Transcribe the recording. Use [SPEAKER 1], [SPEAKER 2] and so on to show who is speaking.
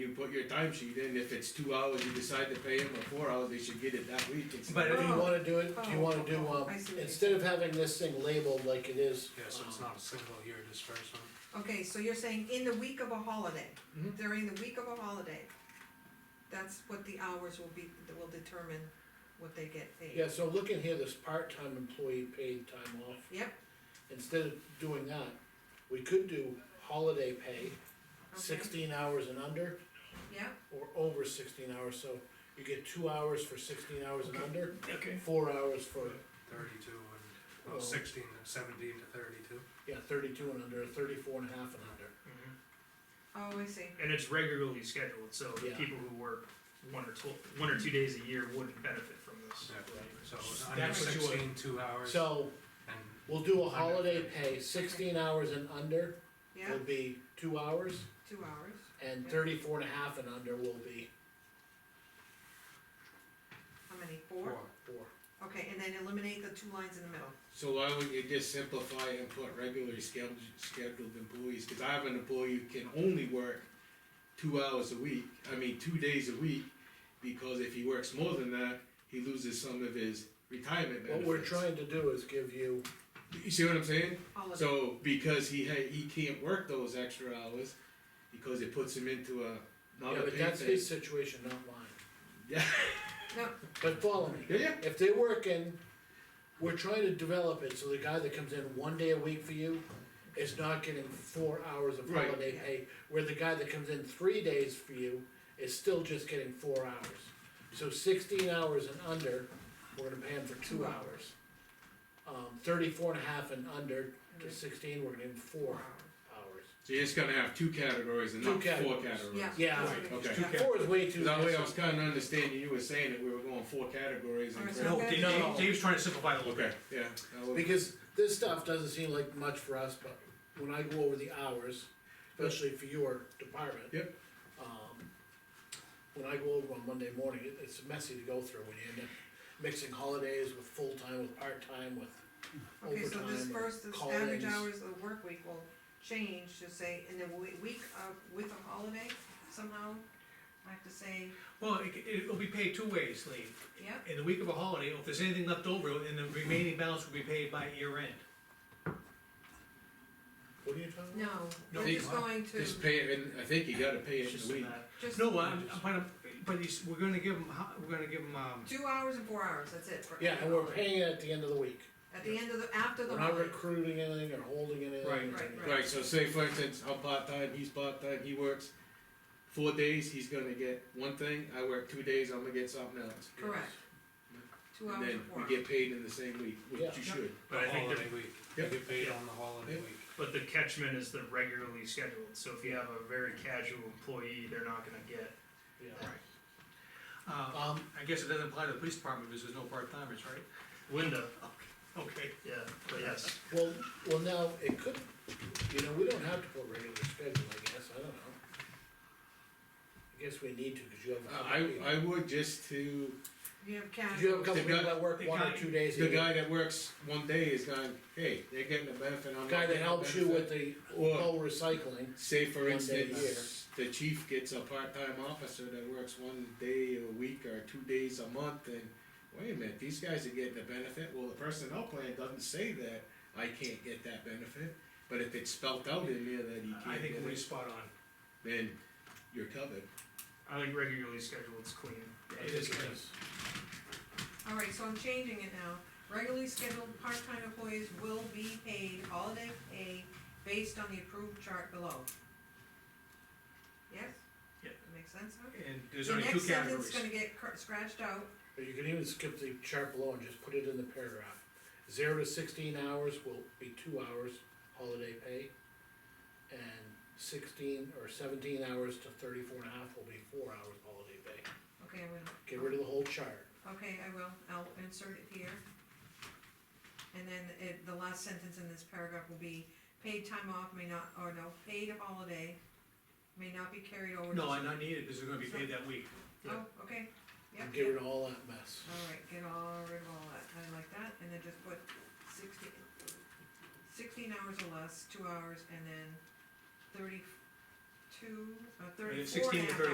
[SPEAKER 1] put your time sheet in, if it's two hours, you decide to pay them or four hours, they should get it that week. It's-
[SPEAKER 2] But
[SPEAKER 3] Do you
[SPEAKER 2] Oh.
[SPEAKER 3] wanna do it, do you wanna do,
[SPEAKER 2] Oh,
[SPEAKER 3] um,
[SPEAKER 2] I see what you're
[SPEAKER 3] instead of having this thing labeled like it is.
[SPEAKER 4] Yeah, so it's
[SPEAKER 3] um,
[SPEAKER 4] not a single year disbursement.
[SPEAKER 2] Okay, so you're saying in the week of a holiday,
[SPEAKER 3] Mm-hmm.
[SPEAKER 4] Mhm.
[SPEAKER 2] during the week of a holiday, that's what the hours will be, that will determine what they get paid.
[SPEAKER 3] Yeah, so look in here, this part-time employee paid time off,
[SPEAKER 2] Yep,
[SPEAKER 3] instead of doing that, we could do holiday pay,
[SPEAKER 2] okay,
[SPEAKER 3] sixteen hours and under,
[SPEAKER 2] yeah,
[SPEAKER 3] or over sixteen hours, so you get two hours for sixteen hours and under,
[SPEAKER 1] Okay.
[SPEAKER 3] four hours for,
[SPEAKER 4] Thirty-two and,
[SPEAKER 3] Oh.
[SPEAKER 4] well, sixteen, seventeen to thirty-two.
[SPEAKER 3] yeah, thirty-two and under, thirty-four and a half and under.
[SPEAKER 5] Mm-hmm.
[SPEAKER 2] oh, I see,
[SPEAKER 6] And it's regularly scheduled, so the
[SPEAKER 3] Yeah.
[SPEAKER 6] people who work one or two, one or two days a year wouldn't benefit from this.
[SPEAKER 4] So under
[SPEAKER 3] That's what you want.
[SPEAKER 4] sixteen, two hours, and
[SPEAKER 3] So, we'll do a holiday pay, sixteen hours and under
[SPEAKER 2] yeah,
[SPEAKER 3] will be two hours,
[SPEAKER 2] two hours,
[SPEAKER 3] and
[SPEAKER 2] Yeah.
[SPEAKER 3] thirty-four and a half and under will be
[SPEAKER 2] how many,
[SPEAKER 4] four.
[SPEAKER 2] four?
[SPEAKER 3] four.
[SPEAKER 2] Okay, and then eliminate the two lines in the middle,
[SPEAKER 1] So why wouldn't you just simplify and put regularly scheduled, scheduled employees, cause I have an employee who can only work two hours a week, I mean, two days a week, because if he works more than that, he loses some of his retirement
[SPEAKER 3] What
[SPEAKER 1] benefits.
[SPEAKER 3] we're trying to do is give you,
[SPEAKER 1] You see what I'm saying?
[SPEAKER 2] holiday,
[SPEAKER 1] So, because he ha he can't work those extra hours, because it puts him into a, not
[SPEAKER 3] yeah,
[SPEAKER 1] a
[SPEAKER 3] but
[SPEAKER 1] pay
[SPEAKER 3] that's his
[SPEAKER 1] phase.
[SPEAKER 3] situation, not mine.
[SPEAKER 1] Yeah,
[SPEAKER 2] no,
[SPEAKER 3] But follow me,
[SPEAKER 1] yeah, yeah,
[SPEAKER 3] if they're working, we're trying to develop it, so the guy that comes in one day a week for you is not getting four hours of
[SPEAKER 1] Right.
[SPEAKER 3] holiday pay, where the guy that comes in three days for you is still just getting four hours. So sixteen hours and under, we're gonna pay him for two
[SPEAKER 2] Two
[SPEAKER 3] hours. Um, thirty-four and a half and under to sixteen, we're gonna give him
[SPEAKER 2] four
[SPEAKER 3] four
[SPEAKER 2] hours,
[SPEAKER 3] hours.
[SPEAKER 1] so you're just gonna have two categories and
[SPEAKER 3] Two
[SPEAKER 1] not four
[SPEAKER 3] categories.
[SPEAKER 1] categories.
[SPEAKER 2] yeah.
[SPEAKER 3] Yeah.
[SPEAKER 1] Right, okay.
[SPEAKER 2] Yeah.
[SPEAKER 3] Four is way too.
[SPEAKER 1] That way I
[SPEAKER 3] much.
[SPEAKER 1] was kinda understanding, you were saying that we were going four categories
[SPEAKER 2] Alright,
[SPEAKER 1] and.
[SPEAKER 2] so-
[SPEAKER 5] No, Dave,
[SPEAKER 3] No,
[SPEAKER 5] Dave-
[SPEAKER 3] no.
[SPEAKER 5] Dave's trying to simplify the look.
[SPEAKER 1] Okay, yeah. that would-
[SPEAKER 3] Because this stuff doesn't seem like much for us, but when I go over the hours, especially for your department.
[SPEAKER 1] Yep.
[SPEAKER 3] Um, when I go over on Monday morning, it, it's messy to go through when you end up mixing holidays with full-time, with part-time, with
[SPEAKER 2] Okay, so this
[SPEAKER 3] overtime, or
[SPEAKER 2] first, this average
[SPEAKER 3] call-ins.
[SPEAKER 2] hours of the work week will change to say, in the we- week of, with a holiday somehow, I have to say,
[SPEAKER 5] Well, it, it'll be paid two ways, Lee.
[SPEAKER 2] yeah,
[SPEAKER 5] In the week of a holiday, or if there's anything left over, then the remaining balance will be paid by year end.
[SPEAKER 3] What are you talking about?
[SPEAKER 2] no,
[SPEAKER 5] No,
[SPEAKER 2] we're just
[SPEAKER 5] why?
[SPEAKER 2] going to,
[SPEAKER 1] Just pay it, in I think you gotta pay it
[SPEAKER 6] It's
[SPEAKER 1] in
[SPEAKER 6] just
[SPEAKER 1] a
[SPEAKER 6] a
[SPEAKER 1] week.
[SPEAKER 6] matter-
[SPEAKER 2] just
[SPEAKER 5] No, I'm, I'm, trying to- but he's, we're gonna give him, ho- we're gonna give him, um,
[SPEAKER 2] two hours and four hours, that's it. for
[SPEAKER 3] Yeah,
[SPEAKER 2] every
[SPEAKER 3] and we're
[SPEAKER 2] holiday.
[SPEAKER 3] paying it at the end of the week,
[SPEAKER 2] At the end of the, after the
[SPEAKER 3] we're not
[SPEAKER 2] holiday,
[SPEAKER 3] recruiting anything or holding anything.
[SPEAKER 5] Right.
[SPEAKER 2] Right, right.
[SPEAKER 1] Right, so say for instance, I'm part-time, he's part-time, he works four days, he's gonna get one thing, I work two days, I'm gonna get something else.
[SPEAKER 2] correct. Two
[SPEAKER 1] And
[SPEAKER 2] hours
[SPEAKER 1] then
[SPEAKER 2] and four
[SPEAKER 1] we
[SPEAKER 2] hours.
[SPEAKER 1] get paid in the same week, which
[SPEAKER 3] Yeah.
[SPEAKER 1] you should.
[SPEAKER 4] The
[SPEAKER 6] But I think
[SPEAKER 4] holiday
[SPEAKER 6] they're-
[SPEAKER 4] week, you
[SPEAKER 1] Yep.
[SPEAKER 4] get paid
[SPEAKER 6] Yeah.
[SPEAKER 4] on the holiday
[SPEAKER 1] Yeah.
[SPEAKER 4] week.
[SPEAKER 6] But the catchment is the regularly scheduled, so if you have a very casual employee, they're not gonna get.
[SPEAKER 3] Yeah.
[SPEAKER 5] uh,
[SPEAKER 3] Um,
[SPEAKER 5] I guess it doesn't apply to the police department because there's no part timers, right?
[SPEAKER 6] Linda,
[SPEAKER 5] Okay.
[SPEAKER 6] yeah, but yes,
[SPEAKER 3] Well, well, now, it could, you know, we don't have to put regular schedule, I guess, I don't know. I guess we need to, cause you have. a couple
[SPEAKER 1] I,
[SPEAKER 3] people-
[SPEAKER 1] I would just to,
[SPEAKER 2] You have
[SPEAKER 3] 'cause you have a
[SPEAKER 2] casual,
[SPEAKER 3] couple
[SPEAKER 1] The guy-
[SPEAKER 3] people that work
[SPEAKER 5] the
[SPEAKER 3] one or
[SPEAKER 5] guy-
[SPEAKER 3] two days a
[SPEAKER 1] the
[SPEAKER 3] year.
[SPEAKER 1] guy that works one day is going, hey, they're getting a benefit, I'm
[SPEAKER 3] The
[SPEAKER 1] not
[SPEAKER 3] Guy that
[SPEAKER 1] getting a
[SPEAKER 3] helps you
[SPEAKER 1] benefit."
[SPEAKER 3] with the
[SPEAKER 1] Or-
[SPEAKER 3] whole recycling,
[SPEAKER 1] Say
[SPEAKER 3] One
[SPEAKER 1] for
[SPEAKER 3] day a
[SPEAKER 1] instance, the chief gets a part-time officer that works one day a week or two days a month and, wait a minute, these guys are getting a benefit, well, the personnel plan doesn't say that I can't get that benefit, but if it's spelt out in there that he
[SPEAKER 5] I
[SPEAKER 1] can't
[SPEAKER 5] think
[SPEAKER 1] get
[SPEAKER 5] Lee's
[SPEAKER 1] it,
[SPEAKER 5] spot on.
[SPEAKER 1] then you're covered.
[SPEAKER 6] I think regularly scheduled's clean.
[SPEAKER 5] It is clean.
[SPEAKER 2] alright, so I'm changing it now. Regularly scheduled part-time employees will be paid holiday pay based on the approved chart below. Yes?
[SPEAKER 5] Yeah.
[SPEAKER 2] That makes sense, huh?
[SPEAKER 5] And there's only two
[SPEAKER 2] The next sentence is
[SPEAKER 5] categories.
[SPEAKER 2] gonna get cr- scratched out,
[SPEAKER 3] or you can even skip the chart below and just put it in the paragraph. Zero to sixteen hours will be two hours holiday pay. And sixteen or seventeen hours to thirty-four and a half will be four hours holiday pay.
[SPEAKER 2] okay, I will,
[SPEAKER 3] Get rid of the whole chart.
[SPEAKER 2] okay, I will, I'll insert it here. And then it, the last sentence in this paragraph will be, paid time off may not, or no, paid holiday may not be carried over. to-
[SPEAKER 5] No, I'm not needed because they're gonna be paid that week.
[SPEAKER 2] Oh, okay, yeah,
[SPEAKER 3] and get rid of all that mess.
[SPEAKER 2] alright, get all rid of all that, I like that, and then just put sixteen, sixteen hours or less, two hours, and then thirty-two, uh,
[SPEAKER 5] And
[SPEAKER 2] thirty-four and a half.
[SPEAKER 5] 16 to 30